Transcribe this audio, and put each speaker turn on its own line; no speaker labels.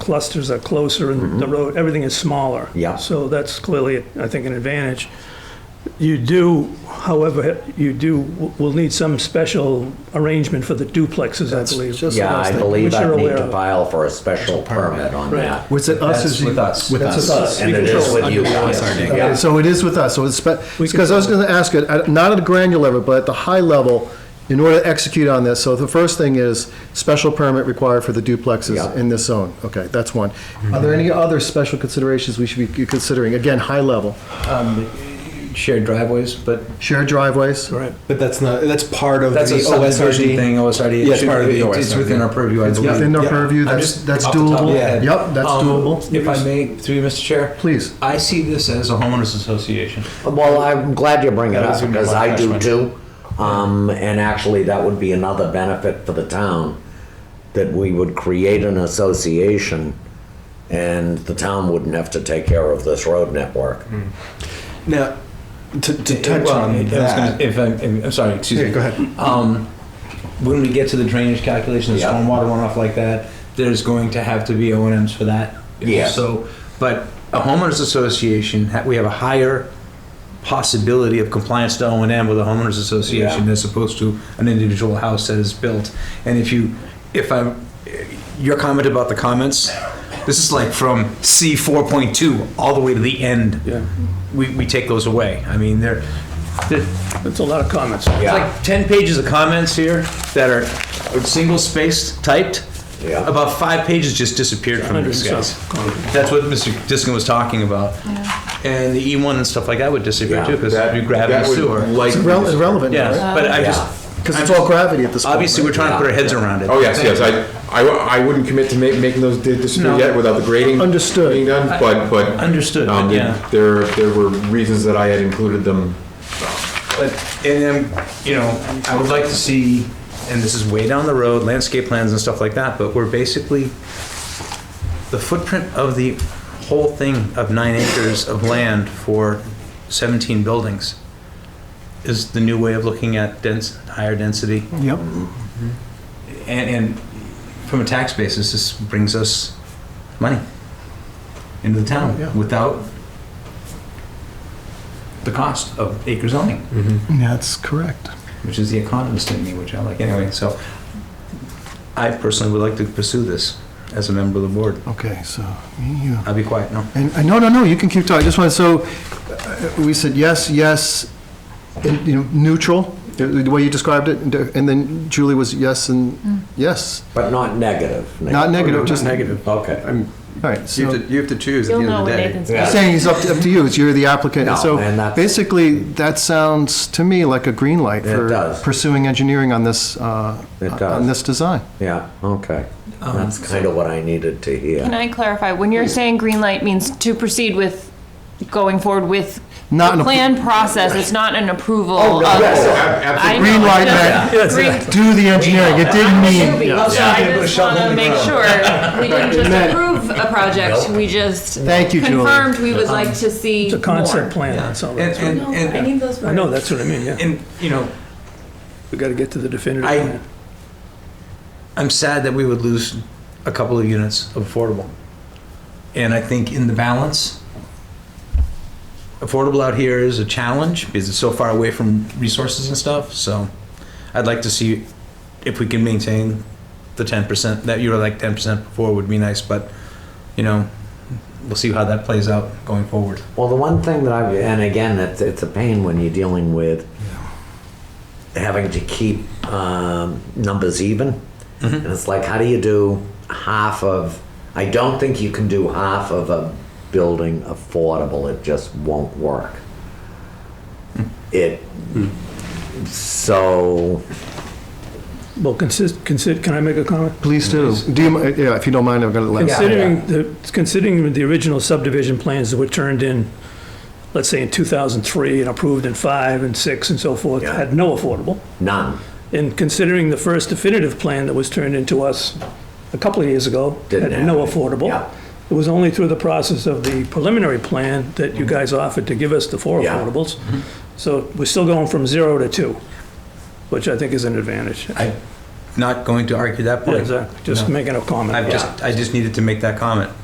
clusters are closer and the road, everything is smaller.
Mm-hmm. Yeah.
So that's clearly, I think, an advantage. You do, however, you do, will need some special arrangement for the duplexes, I believe.
just-
Yeah, I believe
Which
I
you're
need
aware
to
of.
file for a special permit on
Right.
that.
Was it us?
That's
as you-
with us.
With
That's
us.
us.
And it is with you guys.
Okay,
Yeah.
So it is with us, so it's, because I was going to ask it, at- not at a granular level, but at the high level, in order to execute on this, so the first thing is special permit required for the duplexes
Yeah.
in this zone. Okay, that's one. Are there any other special considerations we should be considering? Again, high level,
shared driveways, but
shared driveways?
Right.
But that's not, that's part of the
that's a subdivision
OSRD.
thing, OSRD.
Yeah, it's part of the
It's- It's
OSRD.
within our purview, I
It's
believe.
within their
Yeah.
purview,
I'm
that's,
just
that's
off the top of
doable?
my head.
Yep, that's
Um,
doable.
If I may, through you, Mr. Chair.
Please.
I see this as a homeowners association.
Well, I'm glad you bring it
That
up
was gonna be
because
my
I do
question.
too. Um, and actually, that would be another benefit for the town, that we would create an association and the town wouldn't have to take care of this road network.
Now, to, to touch
Well, I
on
was gonna-
that.
If I'm, I'm sorry, excuse
Yeah,
me.
go ahead.
Um, when we get to the drainage calculation, the
Yeah.
stormwater runoff like that, there's going to have to be O and M's for that.
Yeah.
So, but a homeowners association, ha- we have a higher possibility of compliance to O and M with a homeowners association as opposed to an individual house that is built. And if you, if I, your comment about the comments, this is like from C four point two all the way to the end.
Yeah.
We, we take those away. I mean, they're, they're
That's a lot of comments.
it's
Yeah.
like 10 pages of comments here that are single spaced typed.
Yeah.
About five pages just disappeared from
Hundred
these
and
guys.
some comments.
That's what Mr. Diskin was talking about. And the E1 and stuff like that would disappear
Yeah.
too because we grab
that
the
would
sewer.
like-
It's irrel- irrelevant,
Yes,
right?
but I just.
Because it's all gravity at this point.
Obviously, we're
right?
trying to put our
Yeah.
heads around it.
Oh, yes, yes, I, I, w- I wouldn't commit to ma- making those di-
No.
disappear yet without the grading.
Understood.
Being done, but, but.
Understood,
um,
but yeah.
There, there were reasons that I had included them.
But, and then, you know, I would like to see, and this is way down the road, landscape plans and stuff like that, but we're basically, the footprint of the whole thing of nine acres of land for 17 buildings is the new way of looking at dense, higher density.
Yep.
And, and from a tax basis, this brings us money into the town without the cost of acre zoning
That's correct.
which is the economist in me, which I like anyway. So I personally would like to pursue this as a member of the board.
Okay, so, me, you.
I'll be quiet now.
And, and no, no, no, you can keep talking, I just want, so, uh, we said yes, yes, and, you know, neutral, the the way you described it, and- and then Julie was yes and yes,
But not negative.
not negative, just, all
negative. Okay.
right,
You
so,
have to, you have to choose at
You'll
the end
know
of the
when
day.
Nathan's
Yeah.
back.
saying it's up to, up to you, it's you're the applicant, and
No,
so,
and that's-
basically, that sounds to me like a green light
It
for
does.
pursuing engineering on this, uh,
It
on
does.
this design.
Yeah, okay. That's kind of what I needed to
Can
hear.
I clarify, when you're saying green light means to proceed with, going forward with
Not an
the
appro-
plan process, it's not an approval
Oh,
of.
no, yes,
I know,
Green light
I know.
meant,
Green-
do the engineering, it didn't
I'm a
mean,
newbie,
Let's
so
not
I
get
just wanna make sure, we didn't just approve a project, we just.
Thank you, Julie.
Confirmed we would like to see
It's a concept
more.
plan, that's all.
And,
that's all.
and, and,
those
I know, that's what I mean, yeah.
and, you know,
We gotta get to the definitive
I-
plan.
I'm sad that we would lose a couple of units of affordable. And I think in the balance, affordable out here is a challenge because it's so far away from resources and stuff. So I'd like to see if we can maintain the 10% that you were like 10% before would be nice, but you know, we'll see how that plays out going forward.
Well, the one thing that I've, and again, it's, it's a pain when you're dealing with having to keep um, numbers even. And it's like, how do you do half of, I don't think you can do half of a building affordable. It just won't work. It, so,
Well, consist, consi- can I make a comment?
please do. Do you, mi- yeah, if you don't mind, I'm gonna let.
Considering, the considering the original subdivision plans that were turned in, let's say in 2003 and approved in five and six and so forth,
Yeah.
had no affordable.
none.
And considering the first definitive plan that was turned into us a couple of years ago,
Didn't
had no
have it.
affordable.
Yeah.
It was only through the process of the preliminary plan that you guys offered to give us the four
Mm-hmm. Yeah. Mm-hmm.
affordables. So we're still going from zero to two, which I think is an advantage.
I, not going to argue that
Yeah,
point.
Exactly, just
No.
making a comment.
I've
about it.
just, I just needed to make that comment.